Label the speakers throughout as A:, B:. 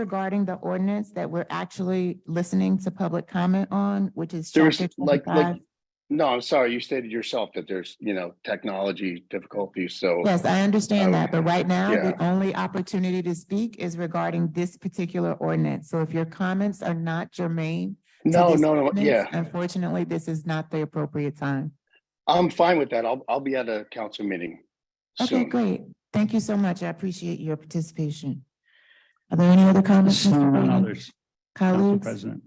A: regarding the ordinance that we're actually listening to public comment on, which is
B: There was
A: chapter
B: like,
A: twenty-five?
B: like, no, I'm sorry, you stated yourself that there's, you know, technology difficulties, so.
A: Yes, I understand
B: I-
A: that, but right now, the
B: yeah.
A: only opportunity to speak is regarding this particular ordinance. So if your comments are not germane. to
B: No,
A: this
B: no, no,
A: ordinance,
B: yeah,
A: Unfortunately, this is not the appropriate time.
B: I'm fine with that. I'll, I'll be at a council meeting
A: Okay,
B: soon.
A: great. Thank you so much. I appreciate your participation. Are there any other comments? Mr.
C: Seeing none
A: Brady?
C: others, Council
A: Colleagues,
C: President.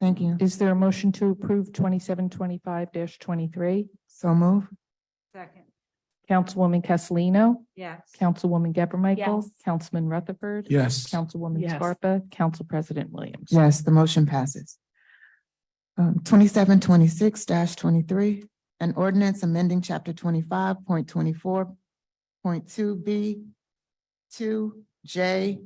A: thank you.
D: Is there a motion to approve twenty-seven twenty-five twenty-three?
A: So move.
E: Second,
D: Councilwoman Castellino,
E: yes.
D: Councilwoman Geber Michael,
E: Yes.
D: Councilman Rutherford.
C: Yes.
D: Councilwoman
E: Yes.
D: Scarpa, Council President Williams.
A: Yes, the motion passes. Um, twenty-seven twenty-six twenty-three, an ordinance amending chapter twenty-five point twenty-four point two B two J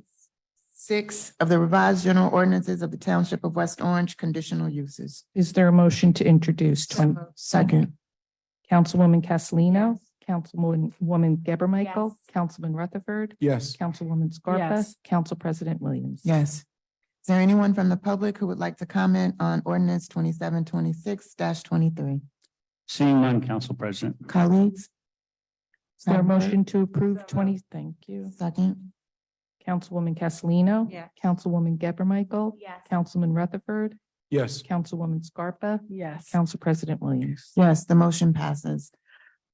A: six of the revised general ordinances of the Township of West Orange, conditional uses.
D: Is there a motion to introduce twenty?
A: Second.
D: Councilwoman Castellino, Councilwoman Geber Michael,
E: Yes.
D: Councilman Rutherford,
C: Yes.
D: Councilwoman Scarpa,
E: Yes.
D: Council President Williams.
A: Yes. Is there anyone from the public who would like to comment on ordinance twenty-seven twenty-six twenty-three?
C: Seeing none, Council President.
A: Colleagues?
D: Is there a
A: Madam Clerk?
D: motion to approve
E: So moved.
D: twenty? Thank you.
A: Second.
D: Councilwoman Castellino.
E: Yes.
D: Councilwoman Geber Michael,
E: Yes.
D: Councilman Rutherford,
C: Yes.
D: Councilwoman Scarpa,
E: Yes.
D: Council President Williams.
A: Yes, the motion passes.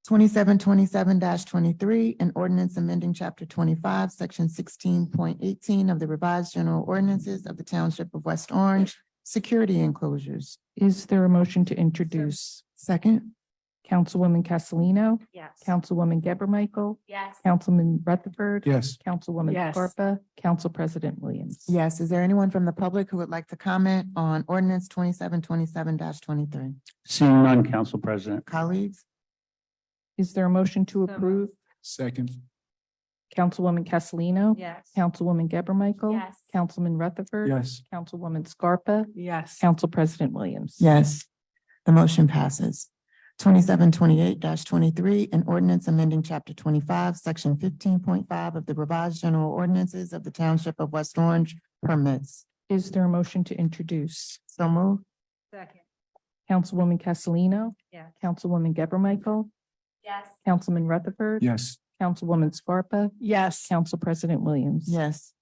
A: Twenty-seven twenty-seven twenty-three, an ordinance amending chapter twenty-five, section sixteen point eighteen of the revised general ordinances of the Township of West Orange, security enclosures.
D: Is there a motion to introduce
A: Second.
D: Councilwoman Castellino,
E: Yes.
D: Councilwoman Geber Michael,
E: Yes.
D: Councilman Rutherford?
C: Yes.
D: Councilwoman
E: Yes.
D: Scarpa, Council President Williams.
A: Yes, is there anyone from the public who would like to comment on ordinance twenty-seven twenty-seven twenty-three?
C: Seeing none, Council President.
A: Colleagues?
D: Is there a motion to
E: moved.
D: approve
C: Second.
D: Councilwoman Castellino?
E: Yes.
D: Councilwoman Geber Michael?
E: Yes.
D: Councilman Rutherford?
C: Yes.
D: Councilwoman Scarpa,
E: Yes.
D: Council President Williams.
A: Yes, the motion passes. Twenty-seven twenty-eight twenty-three, an ordinance amending chapter twenty-five, section fifteen point five of the revised general ordinances of the Township of West Orange permits.
D: Is there a motion to introduce
A: So move.
E: Second,
D: Councilwoman Castellino?
E: yes.
D: Councilwoman Geber Michael?
E: Yes.
D: Councilman Rutherford?
C: Yes.
D: Councilwoman Scarpa,
E: Yes.
D: Council President Williams.
A: Yes.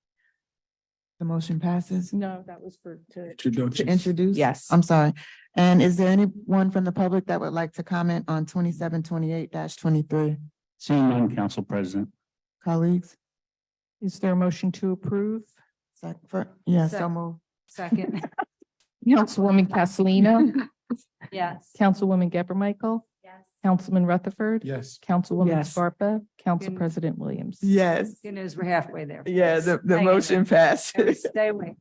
A: The motion passes.
D: No, that was for, to.
A: To introduce?
D: Yes.
A: I'm sorry. And is there anyone from the public that would like to comment on twenty-seven twenty-eight twenty-three?
C: Seeing none, Council President.
A: Colleagues?
D: Is there a motion to approve?
A: Sec- for- Yeah, so
E: Sec-
A: move.
E: Second,
D: Councilwoman Castellino,
E: yes.
D: Councilwoman Geber Michael,
E: Yes.
D: Councilman Rutherford.
C: Yes.
D: Councilwoman
F: Yes.
D: Scarpa, Council
E: Good.
D: President Williams.
F: Yes,
E: Good news, we're halfway there.
F: yeah, the, the
E: Hang in
F: motion
E: there.
F: passes.
E: Stay away.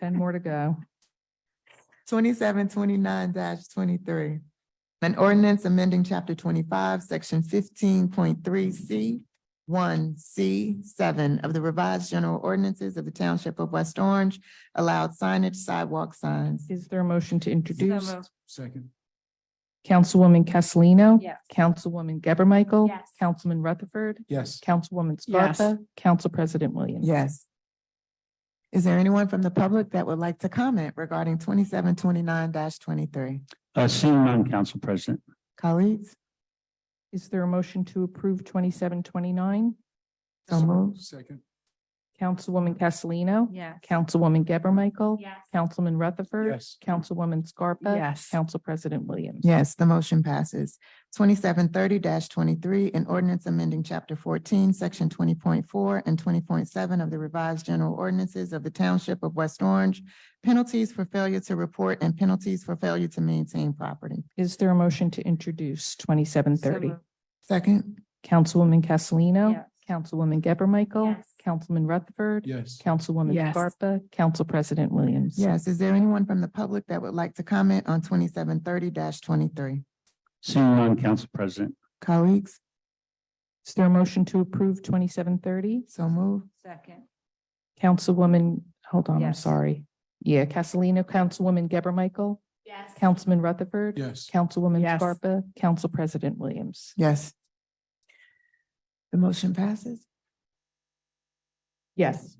D: Ten more to go.
A: Twenty-seven twenty-nine twenty-three. An ordinance amending chapter twenty-five, section fifteen point three C one C seven of the revised general ordinances of the Township of West Orange allowed signage sidewalk signs.
D: Is there a motion to introduce?
E: moved.
C: Second.
D: Councilwoman Castellino.
E: Yes.
D: Councilwoman Geber Michael.
E: Yes.
D: Councilman Rutherford.
C: Yes.
D: Councilwoman
F: Yes.
D: Scarpa, Council President Williams.
A: Yes. Is there anyone from the public that would like to comment regarding twenty-seven twenty-nine twenty-three?
C: Uh, seeing none, Council President.
A: Colleagues?
D: Is there a motion to approve twenty-seven twenty-nine?
A: So moved.
C: Second.
D: Councilwoman Castellino.
E: Yes.
D: Councilwoman Geber Michael.
E: Yes.
D: Councilman Rutherford.
C: Yes.
D: Councilwoman Scarpa.
F: Yes.
D: Council President Williams.
A: Yes, the motion passes. Twenty-seven thirty twenty-three, an ordinance amending chapter fourteen, section twenty point four and twenty point seven of the revised general ordinances of the Township of West Orange, penalties for failure to report and penalties for failure to maintain property.
D: Is there a motion to introduce twenty-seven
E: So
D: thirty?
E: moved.
A: Second.
D: Councilwoman Castellino.
E: Yes.
D: Councilwoman Geber Michael.
E: Yes.
D: Councilman Rutherford.
C: Yes.
D: Councilwoman
F: Yes.
D: Scarpa, Council President Williams.
A: Yes, is there anyone from the public that would like to comment on twenty-seven thirty twenty-three?
C: Seeing none, Council President.
A: Colleagues,
D: Is there a motion to approve twenty-seven thirty?
A: so move.
E: Second,
D: Councilwoman, hold on, I'm
E: Yes.
D: sorry. Yeah, Castellino, Councilwoman Geber Michael.
E: yes.
D: Councilman Rutherford.
C: Yes.
D: Councilwoman
F: Yes.
D: Scarpa, Council President Williams.
A: Yes. The motion passes.
D: Yes.